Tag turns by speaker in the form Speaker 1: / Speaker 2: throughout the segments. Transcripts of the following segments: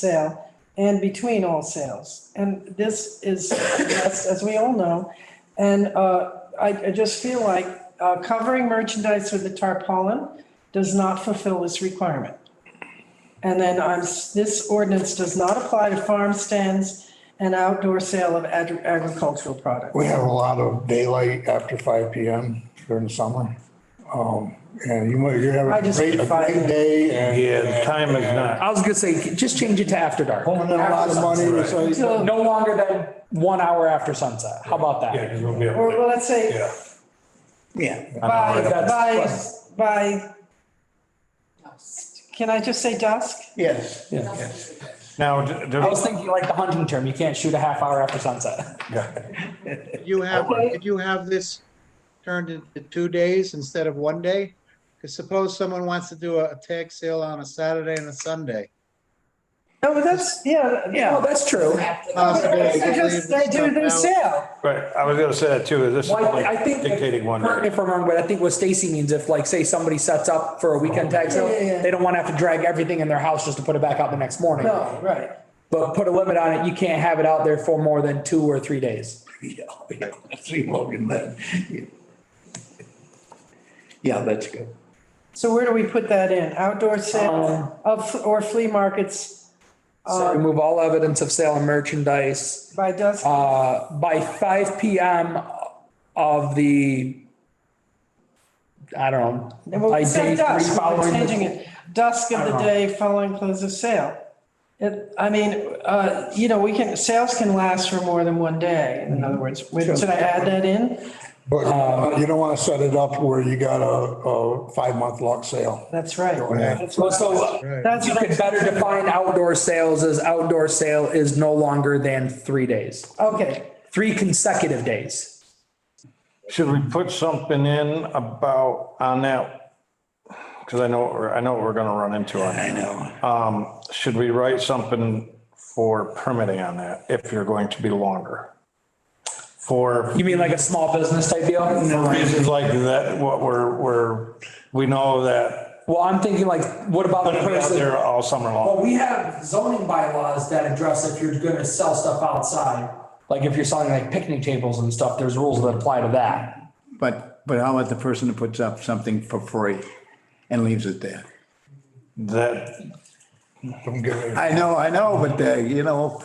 Speaker 1: sale and between all sales. And this is, yes, as we all know. And uh, I, I just feel like uh, covering merchandise with a tarpaulin does not fulfill this requirement. And then I'm, s- this ordinance does not apply to farm stands and outdoor sale of agri- agricultural products.
Speaker 2: We have a lot of daylight after five PM during the summer. Um, and you might, you're having
Speaker 1: I
Speaker 2: a
Speaker 1: just
Speaker 2: great, a
Speaker 1: did five
Speaker 2: great day and.
Speaker 3: Yeah, the time is not.
Speaker 4: I was gonna say, just change it to after dark.
Speaker 2: Pulling in a lot of money, so you-
Speaker 1: So-
Speaker 4: No longer than one hour after sunset. How about
Speaker 3: Yeah,
Speaker 4: that?
Speaker 3: 'cause we'll be
Speaker 1: Or
Speaker 3: able
Speaker 1: well,
Speaker 3: to.
Speaker 1: let's say
Speaker 3: Yeah.
Speaker 4: Yeah.
Speaker 1: by,
Speaker 4: That's
Speaker 1: by,
Speaker 4: fine.
Speaker 1: by, can I just say dusk?
Speaker 2: yes,
Speaker 3: Now, d-
Speaker 4: I was
Speaker 3: do,
Speaker 4: thinking like the hunting term, you can't shoot a half hour after sunset.
Speaker 5: You have,
Speaker 1: Okay.
Speaker 5: did you have this turned into two days instead of one day? Because suppose someone wants to do a tag sale on a Saturday and a Sunday.
Speaker 1: No, but that's, yeah.
Speaker 4: Yeah, that's true.
Speaker 5: Possibly
Speaker 1: They
Speaker 5: they could
Speaker 1: just, they
Speaker 5: leave the
Speaker 1: do
Speaker 5: stuff
Speaker 1: their
Speaker 5: out.
Speaker 1: sale.
Speaker 3: right, I was gonna say that too, this is
Speaker 4: Well, I- I
Speaker 3: like
Speaker 4: think.
Speaker 3: dictating one.
Speaker 4: Correct me if I'm wrong, but I think what Stacy means, if like, say somebody sets up for a weekend tag sale,
Speaker 1: Yeah, yeah, yeah.
Speaker 4: they don't want to have to drag everything in their house just to put it back out the next morning.
Speaker 1: No, right.
Speaker 4: But put a limit on it, you can't have it out there for more than two or three days.
Speaker 6: Yeah, yeah, I see Logan then. Yeah, that's good.
Speaker 1: So where do we put that in? Outdoor
Speaker 3: Uh,
Speaker 1: sale of, or flea markets
Speaker 4: So remove all evidence of sale and merchandise.
Speaker 1: by dusk?
Speaker 4: uh, by five PM of the, I don't know.
Speaker 1: Well,
Speaker 4: by
Speaker 1: we
Speaker 4: day
Speaker 1: said dusk,
Speaker 4: three
Speaker 1: we're
Speaker 4: following the-
Speaker 1: changing it. Dusk of the
Speaker 3: Uh-huh.
Speaker 1: day following close of sale. It, I mean, uh, you know, we can, sales can last for more than one day,
Speaker 3: Mm-hmm.
Speaker 1: in other words. Wait, Should I add that in?
Speaker 2: but
Speaker 1: Um,
Speaker 2: uh, you don't want to set it up where you got a, a five-month lock sale.
Speaker 1: That's right.
Speaker 2: ahead.
Speaker 1: That's
Speaker 4: Well,
Speaker 1: what-
Speaker 4: So
Speaker 1: that's
Speaker 4: you
Speaker 1: what I'm
Speaker 4: could better define outdoor sales as outdoor sale is no longer than three days,
Speaker 1: Okay,
Speaker 4: three consecutive days.
Speaker 3: Should we put something in about, on that? Because I know, what we're- I know what we're gonna run into on
Speaker 6: I
Speaker 3: that.
Speaker 6: know.
Speaker 3: Um, should we write something for permitting on that, if you're going to be longer? For
Speaker 4: You mean like a small business type deal?
Speaker 3: reasons like that, what we're, we're, we know that
Speaker 4: Well, I'm thinking like, what about the
Speaker 3: they're gonna be out
Speaker 4: person?
Speaker 3: there all summer long.
Speaker 4: Well, we have zoning bylaws that address if you're gonna sell stuff outside. Like if you're selling like picnic tables and stuff, there's rules that apply to that.
Speaker 7: But, but how about the person who puts up something for free and leaves it there?
Speaker 3: That,
Speaker 2: Don't give it-
Speaker 7: I know, I know, but, uh, you know,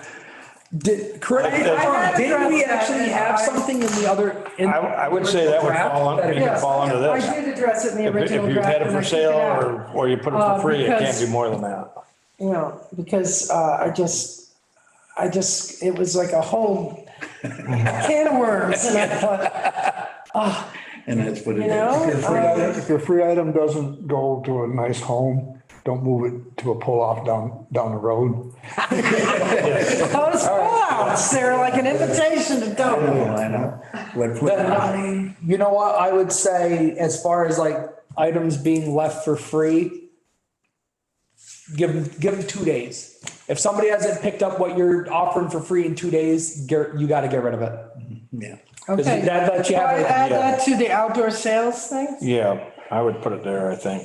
Speaker 4: Did, correct, me if I'm
Speaker 1: I-
Speaker 4: wrong,
Speaker 1: I-
Speaker 4: didn't we actually have something in the other? in-
Speaker 3: I, I would say that would fall, un- it could
Speaker 1: yes.
Speaker 3: fall under this.
Speaker 1: I did address it in the
Speaker 3: If if
Speaker 1: original
Speaker 3: you
Speaker 1: draft.
Speaker 3: had it
Speaker 1: and I
Speaker 3: for
Speaker 1: took
Speaker 3: sale
Speaker 1: out.
Speaker 3: or, or you put it
Speaker 1: Uh,
Speaker 3: for free, it
Speaker 1: because-
Speaker 3: can't be more than that.
Speaker 1: You know, because uh, I just, I just, it was like a whole can of worms. And I thought,
Speaker 6: And that's what it
Speaker 1: you
Speaker 6: is.
Speaker 1: know,
Speaker 2: If your free item doesn't go to a nice home, don't move it to a pull-off down, down the road.
Speaker 1: uh, those pullouts, they're like an invitation to
Speaker 6: Oh,
Speaker 1: don't.
Speaker 6: I know. What-
Speaker 4: Then,
Speaker 6: what-
Speaker 4: I- you know what, I would say as far as like items being left for free, give them, give them two days. If somebody hasn't picked up what you're offering for free in two days, get- you gotta get rid of it.
Speaker 6: Yeah.
Speaker 4: Because
Speaker 1: Okay.
Speaker 4: that lets you
Speaker 1: Can
Speaker 4: have
Speaker 1: I
Speaker 4: it.
Speaker 1: add that to the outdoor sales thing?
Speaker 3: Yeah, I would put it there, I think.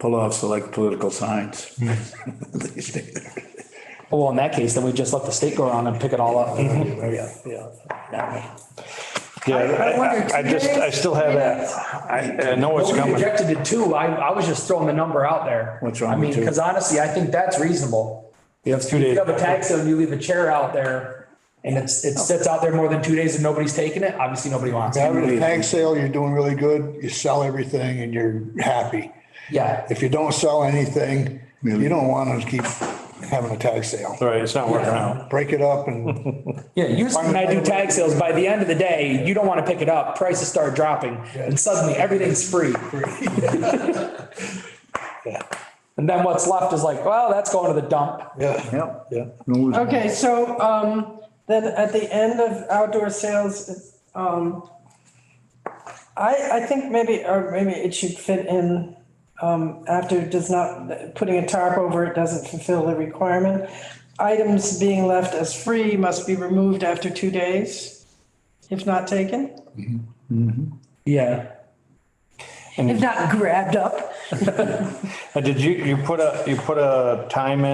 Speaker 6: Pull off select political signs.
Speaker 4: Well, in that case, then we just let the state go around and pick it all up.
Speaker 6: Yeah, yeah. That way.
Speaker 3: Yeah,
Speaker 1: I- I wonder,
Speaker 3: I- I, I
Speaker 1: two
Speaker 3: just, I
Speaker 1: days,
Speaker 3: still have
Speaker 1: three
Speaker 3: that.
Speaker 1: days?
Speaker 3: I, I know it's
Speaker 4: We
Speaker 3: coming.
Speaker 4: rejected it too. I, I was just throwing the number out there.
Speaker 6: What's wrong
Speaker 4: I mean,
Speaker 6: with two?
Speaker 4: because honestly, I think that's reasonable.
Speaker 3: You have two
Speaker 4: You
Speaker 3: days.
Speaker 4: have a tag sale and you leave a chair out there and it's, it sits out there more than two days and nobody's taking it, obviously nobody wants it.
Speaker 2: Having a tag sale, you're doing really good, you sell everything and you're happy.
Speaker 4: Yeah.
Speaker 2: If you don't sell anything, you don't want to keep having a tag sale.
Speaker 3: Right, it's not working out.
Speaker 2: Break it up and
Speaker 4: Yeah, usually when I do tag sales, by the end of the day, you don't want to pick it up. Prices start dropping and suddenly everything's free. And then what's left is like, well, that's going to the dump.
Speaker 7: yeah. Yeah.
Speaker 1: Okay, so um, then at the end of outdoor sales, um, I, I think maybe, or maybe it should fit in um, after it does not, putting a tarp over it doesn't fulfill the requirement. Items being left as free must be removed after two days, if not taken.
Speaker 4: Yeah.
Speaker 8: if not grabbed up.
Speaker 3: Uh, Did you, you put a, you put a time in